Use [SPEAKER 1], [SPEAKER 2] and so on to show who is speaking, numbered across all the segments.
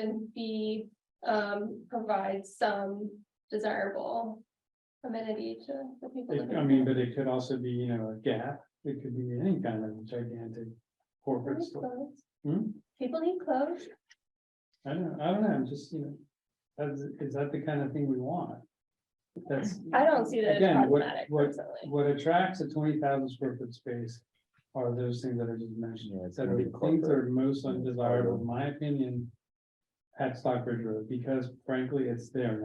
[SPEAKER 1] and B, um, provides some desirable amenity to the people.
[SPEAKER 2] It-
[SPEAKER 1] that
[SPEAKER 2] I
[SPEAKER 1] are
[SPEAKER 2] mean,
[SPEAKER 1] there.
[SPEAKER 2] but it could also be, you know, a gap, it could be any kind of gigantic
[SPEAKER 1] People
[SPEAKER 2] corporate
[SPEAKER 1] need
[SPEAKER 2] store.
[SPEAKER 1] clothes.
[SPEAKER 2] Hmm?
[SPEAKER 1] People need clothes.
[SPEAKER 2] I don't, I don't know, I'm just, you know, that's, is that the kind of thing we want? That's.
[SPEAKER 1] I don't see that as
[SPEAKER 2] Again, what-
[SPEAKER 1] problematic
[SPEAKER 2] what-
[SPEAKER 1] personally.
[SPEAKER 2] What attracts a twenty thousand square foot space are those things that are just mentioned,
[SPEAKER 3] Yeah, it's
[SPEAKER 2] that are
[SPEAKER 3] very
[SPEAKER 2] the things that are
[SPEAKER 3] corporate.
[SPEAKER 2] most undesirable, in my opinion. At Stockbridge Road, because frankly, it's there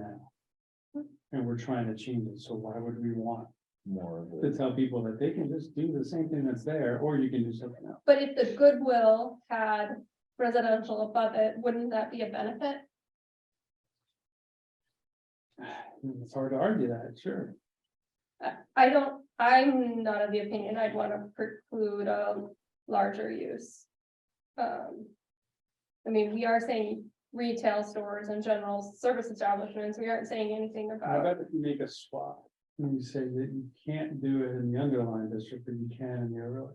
[SPEAKER 2] now. And we're trying to change it, so why would we want
[SPEAKER 3] more of
[SPEAKER 2] to
[SPEAKER 3] it.
[SPEAKER 2] tell people that they can just do the same thing that's there, or you can do something else?
[SPEAKER 1] But if the Goodwill had residential above it, wouldn't that be a benefit?
[SPEAKER 2] Mm, It's hard to argue that, sure.
[SPEAKER 1] I don't, I'm not of the opinion I'd want to preclude a larger use. Um. I mean, we are saying retail stores and general service establishments, we aren't saying anything
[SPEAKER 2] How
[SPEAKER 1] about,
[SPEAKER 2] about if you make a swap? And you say that you can't do it in the underlying district, but you can in the overlay.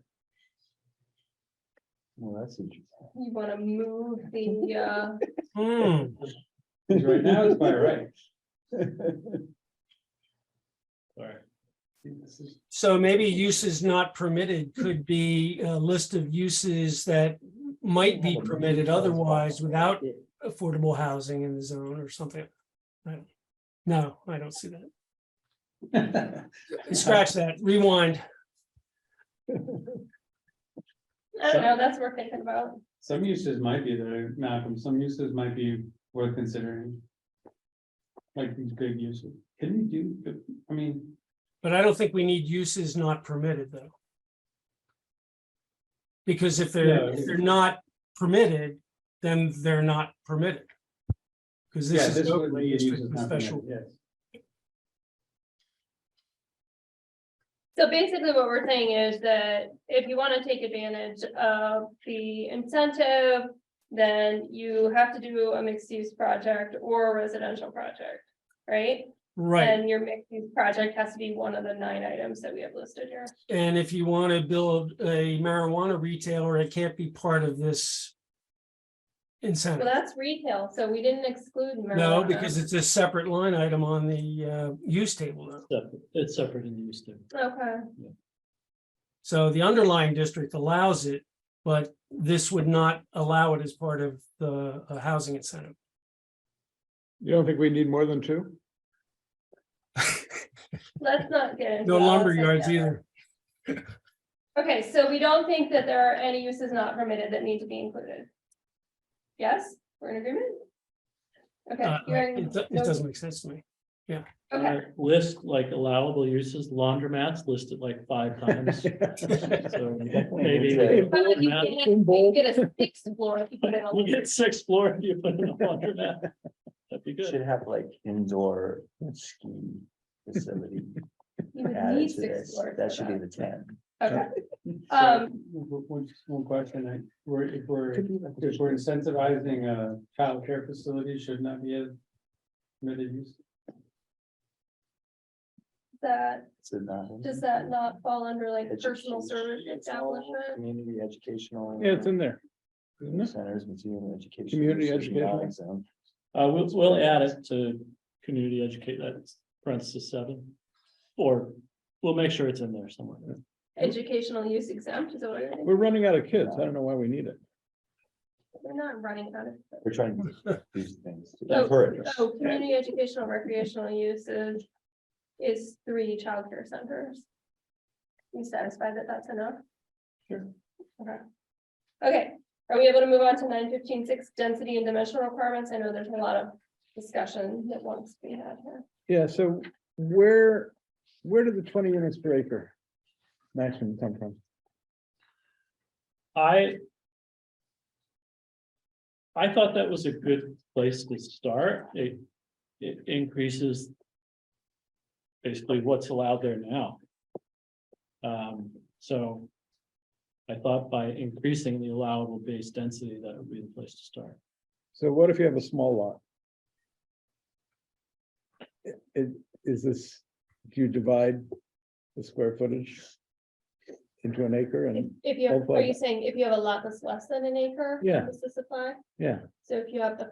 [SPEAKER 3] Well, that's interesting.
[SPEAKER 1] you want to move the, uh.
[SPEAKER 4] Hmm.
[SPEAKER 2] Because right now it's by right.
[SPEAKER 5] Sorry.
[SPEAKER 2] See, This is
[SPEAKER 4] So maybe uses not permitted could be a list of uses that might be permitted otherwise without affordable housing in the zone or something. I don't- No, I don't see that. Scratch that, rewind.
[SPEAKER 1] I don't know, that's what we're thinking about.
[SPEAKER 2] Some uses might be there, Malcolm, some uses might be worth considering. Like these big uses, can you do, I mean,
[SPEAKER 4] But I don't think we need uses not permitted though. Because if
[SPEAKER 2] Yeah,
[SPEAKER 4] they're,
[SPEAKER 2] I
[SPEAKER 4] if
[SPEAKER 2] mean-
[SPEAKER 4] they're not permitted, then they're not permitted. Because
[SPEAKER 2] yeah,
[SPEAKER 4] this is.
[SPEAKER 2] this
[SPEAKER 4] an
[SPEAKER 2] would
[SPEAKER 4] overlay
[SPEAKER 2] be a
[SPEAKER 4] district
[SPEAKER 2] use is
[SPEAKER 4] with
[SPEAKER 2] not
[SPEAKER 4] special-
[SPEAKER 2] permitted, yes.
[SPEAKER 1] So basically what we're saying is that if you want to take advantage of the incentive, then you have to do a mixed use project or a residential project, right?
[SPEAKER 4] Right.
[SPEAKER 1] And your mixed use project has to be one of the nine items that we have listed here.
[SPEAKER 4] And if you want to build a marijuana retailer, it can't be part of this
[SPEAKER 1] Well,
[SPEAKER 4] incentive.
[SPEAKER 1] that's retail, so we didn't exclude
[SPEAKER 4] No,
[SPEAKER 1] marijuana.
[SPEAKER 4] because it's a separate line item on the uh, use table. now.
[SPEAKER 5] Separate- It's separate in use too.
[SPEAKER 1] Okay,
[SPEAKER 4] So the underlying district allows it, but this would not allow it as part of the uh, housing incentive.
[SPEAKER 6] You don't think we need more than two?
[SPEAKER 1] let's not get into.
[SPEAKER 4] No
[SPEAKER 1] all
[SPEAKER 4] lumber
[SPEAKER 1] this
[SPEAKER 4] yards
[SPEAKER 1] again.
[SPEAKER 4] either.
[SPEAKER 1] Okay, so we don't think that there are any uses not permitted that need to be included? Yes, we're in agreement? Okay.
[SPEAKER 4] Uh,
[SPEAKER 1] hearing
[SPEAKER 4] It do-
[SPEAKER 1] no-
[SPEAKER 4] it doesn't make sense to me.
[SPEAKER 1] Okay,
[SPEAKER 5] Uh, List like allowable uses, laundromats listed like five times. So Maybe.
[SPEAKER 3] Okay.
[SPEAKER 1] But you get,
[SPEAKER 5] laundromat-
[SPEAKER 1] you get a sixth floor if you put in a
[SPEAKER 5] You get six floor if you put in a laundromat. That'd be good.
[SPEAKER 3] Should have like indoor ski facility
[SPEAKER 1] You would
[SPEAKER 3] added
[SPEAKER 1] need
[SPEAKER 3] to
[SPEAKER 1] six
[SPEAKER 3] this.
[SPEAKER 1] floors.
[SPEAKER 3] That
[SPEAKER 1] for
[SPEAKER 3] should be the ten.
[SPEAKER 1] Okay,
[SPEAKER 2] So,
[SPEAKER 1] Um,
[SPEAKER 2] w- w- just One question, I, we're, if we're,
[SPEAKER 3] Could be like a
[SPEAKER 2] if we're incentivizing a childcare facility, shouldn't that be a permitted use?
[SPEAKER 1] that,
[SPEAKER 3] It's a nine.
[SPEAKER 1] does that not fall under like personal
[SPEAKER 3] Education,
[SPEAKER 1] service
[SPEAKER 3] it's all
[SPEAKER 1] establishment?
[SPEAKER 3] Community educational.
[SPEAKER 6] Yeah, it's in there. isn't it?
[SPEAKER 3] Centers, museum education. um,
[SPEAKER 6] Community
[SPEAKER 3] should be not
[SPEAKER 6] educational.
[SPEAKER 3] exempt.
[SPEAKER 5] Uh, we'll, we'll add it to community educate, that's parenthesis seven. Or we'll make sure it's in there somewhere.
[SPEAKER 1] Educational use exempt is what I think,
[SPEAKER 6] We're running out of kids. I don't know why we need it.
[SPEAKER 1] we're not running out of.
[SPEAKER 3] We're trying to do things to
[SPEAKER 1] So-
[SPEAKER 3] encourage.
[SPEAKER 1] So community educational recreational uses is three childcare centers. You satisfied that that's enough?
[SPEAKER 3] Sure.
[SPEAKER 1] Okay. Okay, are we able to move on to nine fifteen six density and dimensional requirements? I know there's a lot of discussion that wants to be had here.
[SPEAKER 6] Yeah, so where, where do the twenty units per acre maximum come from?
[SPEAKER 5] I. I thought that was a good place to start. It, it increases. Basically what's allowed there now. Um, so. I thought by increasing the allowable base density, that would be the place to start.
[SPEAKER 6] So what if you have a small lot? I- i- Is this, do you divide the square footage into an acre
[SPEAKER 1] If
[SPEAKER 6] and,
[SPEAKER 1] if you, have-
[SPEAKER 6] Well,
[SPEAKER 1] are you saying if you have a lot that's less than an acre?
[SPEAKER 6] Yeah.
[SPEAKER 1] Does this apply?
[SPEAKER 6] yeah?
[SPEAKER 1] So if you have the